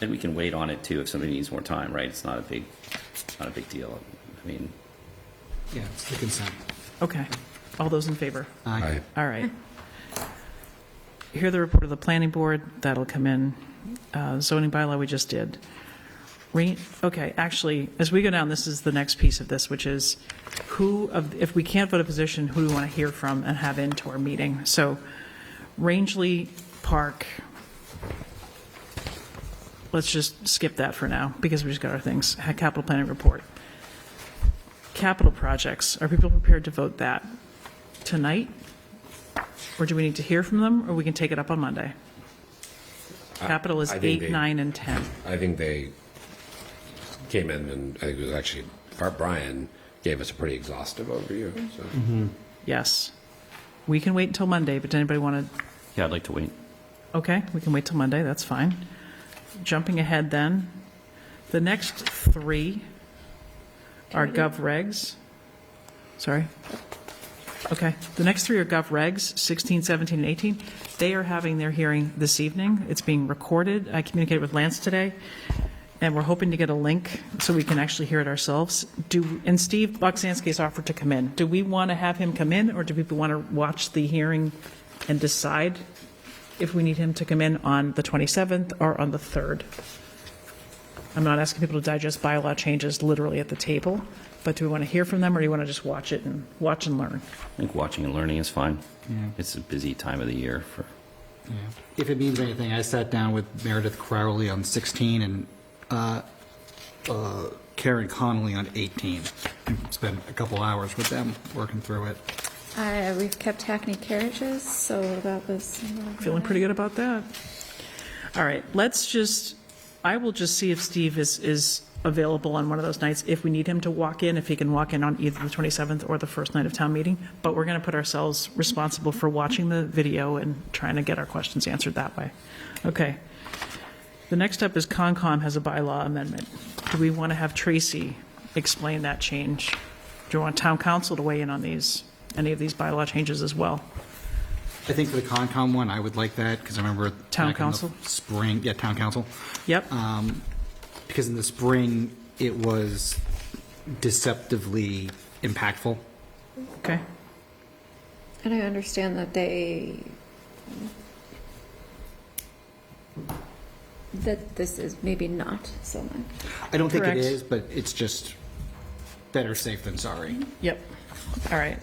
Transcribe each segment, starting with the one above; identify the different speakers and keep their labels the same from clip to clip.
Speaker 1: And we can wait on it too if somebody needs more time, right? It's not a big, not a big deal. I mean,
Speaker 2: Yeah, it's the consent.
Speaker 3: Okay. All those in favor?
Speaker 2: Aye.
Speaker 3: All right. Hear the report of the planning board, that'll come in. Uh, Zoning bylaw, we just did. Re, okay, actually, as we go down, this is the next piece of this, which is who, of if we can't vote a position, who do we want to hear from and have into our meeting? So Rangeley Park, let's just skip that for now, because we just got our things. Capital planning report. Capital projects, are people prepared to vote that tonight? Or do we need to hear from them, or we can take it up on Monday? Capital is
Speaker 4: I think
Speaker 3: eight,
Speaker 4: they-
Speaker 3: nine, and 10.
Speaker 4: I think they came in and I think it was actually Brian gave us a pretty exhaustive overview. So
Speaker 5: Mm-hmm.
Speaker 3: Yes. We can wait until Monday, but does anybody want to,
Speaker 1: yeah, I'd like to wait.
Speaker 3: okay, we can wait till Monday, that's fine. Jumping ahead then, the next three are gov regs. Sorry. Okay, the next three are gov regs, 16, 17, and 18. They are having their hearing this evening. It's being recorded. I communicated with Lance today, and we're hoping to get a link so we can actually hear it ourselves. Do, and Steve Boxansky has offered to come in. Do we want to have him come in, or do people want to watch the hearing and decide if we need him to come in on the 27th or on the 3rd? I'm not asking people to digest bylaw changes literally at the table, but do we want to hear from them, or do you want to just watch it and, watch and learn?
Speaker 1: I think watching and learning is fine.
Speaker 2: Yeah.
Speaker 1: It's a busy time of the year for,
Speaker 2: Yeah. If it means anything, I sat down with Meredith Crowley on 16 and uh, uh, Karen Connolly on 18. Spent a couple hours with them working through it.
Speaker 5: Uh, we've kept Hackney carriages, so what about this?
Speaker 3: Feeling pretty good about that. All right, let's just, I will just see if Steve is, is available on one of those nights, if we need him to walk in, if he can walk in on either the 27th or the first night of town meeting. But we're going to put ourselves responsible for watching the video and trying to get our questions answered that way. Okay. The next up is Concom has a bylaw amendment. Do we want to have Tracy explain that change? Do you want town council to weigh in on these, any of these bylaw changes as well?
Speaker 2: I think for the Concom one, I would like that because I remember. back in
Speaker 3: Town
Speaker 2: the
Speaker 3: council?
Speaker 2: Spring, yeah, town council.
Speaker 3: Yep?
Speaker 2: Because in the spring, it was deceptively impactful.
Speaker 3: Okay.
Speaker 5: And I understand that they, that this is maybe not so much.
Speaker 2: I don't think it
Speaker 3: Correct.
Speaker 2: is, but it's just better safe than sorry.
Speaker 3: Yep. All right.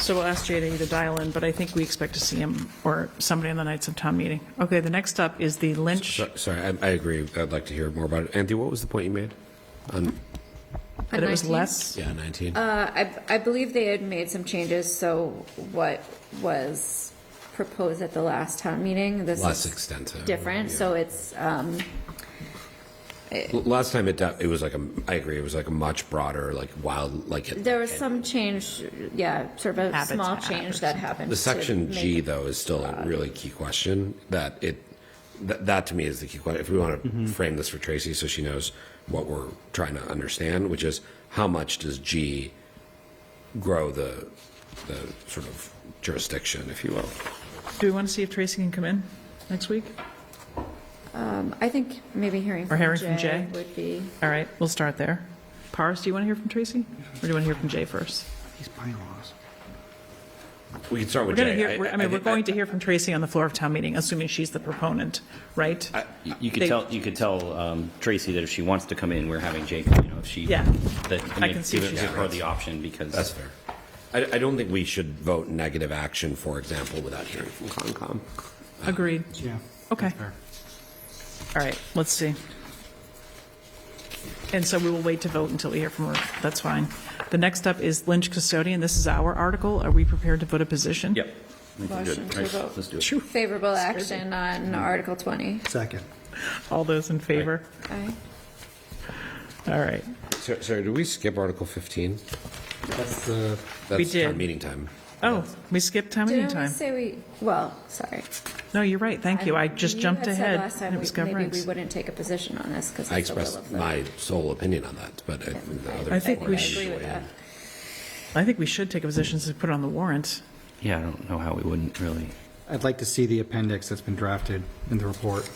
Speaker 3: So we'll ask Jay to either dial in, but I think we expect to see him or somebody on the nights of town meeting. Okay, the next up is the Lynch.
Speaker 4: So- sorry, I, I agree. I'd like to hear more about it. Anthony, what was the point you made? On
Speaker 3: That it was less?
Speaker 4: yeah, nineteen.
Speaker 5: Uh, I, I believe they had made some changes, so what was proposed at the last town meeting, this
Speaker 4: Less
Speaker 5: is
Speaker 4: extensive.
Speaker 5: different, so it's, um,
Speaker 4: L- Last time it do- it was like a I agree. It was like a much broader like wild like it,
Speaker 5: there was some change, yeah, sort of a
Speaker 3: Habitat
Speaker 5: small
Speaker 3: or
Speaker 5: change that happened.
Speaker 4: the
Speaker 5: to
Speaker 4: section G
Speaker 5: make-
Speaker 4: though is still a really key question. That it that, that to me is the key question. If we want to
Speaker 3: Mm-hmm.
Speaker 4: frame this for Tracy, so she knows what we're trying to understand, which is how much does G grow the the sort of jurisdiction, if you will.
Speaker 3: Do we want to see if Tracy can come in next week?
Speaker 5: I think maybe hearing from
Speaker 3: hearing from Jay.
Speaker 5: would be.
Speaker 3: All right, we'll start there. Paris, do you want to hear from Tracy? Or do you want to hear from Jay first?
Speaker 2: These bylaws.
Speaker 4: We can start
Speaker 3: We're
Speaker 4: with
Speaker 3: going to
Speaker 4: Jay.
Speaker 3: hear, we're- I mean, we're
Speaker 4: think-
Speaker 3: going to hear from Tracy on the floor of town meeting, assuming she's the proponent, right?
Speaker 1: You- You could
Speaker 3: They-
Speaker 1: tell, you could tell um, Tracy that if she wants to come in, we're having Jake, you know, if she.
Speaker 3: Yeah.
Speaker 1: That, I
Speaker 3: I
Speaker 1: mean,
Speaker 3: can see
Speaker 1: give
Speaker 3: she's-
Speaker 1: give her the option because.
Speaker 4: That's fair. I, I don't think we should vote negative action, for example, without hearing from Concom.
Speaker 3: Agreed.
Speaker 2: Yeah.
Speaker 3: Okay.
Speaker 2: that's fair.
Speaker 3: All right, let's see. And so we will wait to vote until we hear from her. That's fine. The next up is Lynch custodian. This is our article. Are we prepared to vote a position?
Speaker 1: Yep. I think we're good.
Speaker 5: Motion to
Speaker 1: All right,
Speaker 5: vote.
Speaker 1: Let's do it.
Speaker 5: Favorable action on Article 20.
Speaker 2: Second.
Speaker 3: All those in favor?
Speaker 5: Aye.
Speaker 3: All right.
Speaker 4: So- Sorry, did we skip Article 15?
Speaker 2: That's the,
Speaker 3: We
Speaker 4: That's
Speaker 3: did.
Speaker 4: town meeting time.
Speaker 3: Oh, we skipped time meeting
Speaker 5: Didn't we
Speaker 3: time.
Speaker 5: say we, well, sorry.
Speaker 3: No, you're right. Thank you. I just jumped
Speaker 5: had said
Speaker 3: ahead.
Speaker 5: Last time,
Speaker 3: and it was
Speaker 5: we- maybe we
Speaker 3: governance.
Speaker 5: wouldn't take a position on this because
Speaker 4: I
Speaker 5: it's the will of
Speaker 4: expressed
Speaker 5: the.
Speaker 4: my sole opinion on that, but I- the other.
Speaker 3: I think we
Speaker 5: I
Speaker 3: should-
Speaker 5: agree with that.
Speaker 3: I think we should take a position since we put it on the warrant.
Speaker 1: Yeah, I don't know how we wouldn't really.
Speaker 2: I'd like to see the appendix that's been drafted in the report.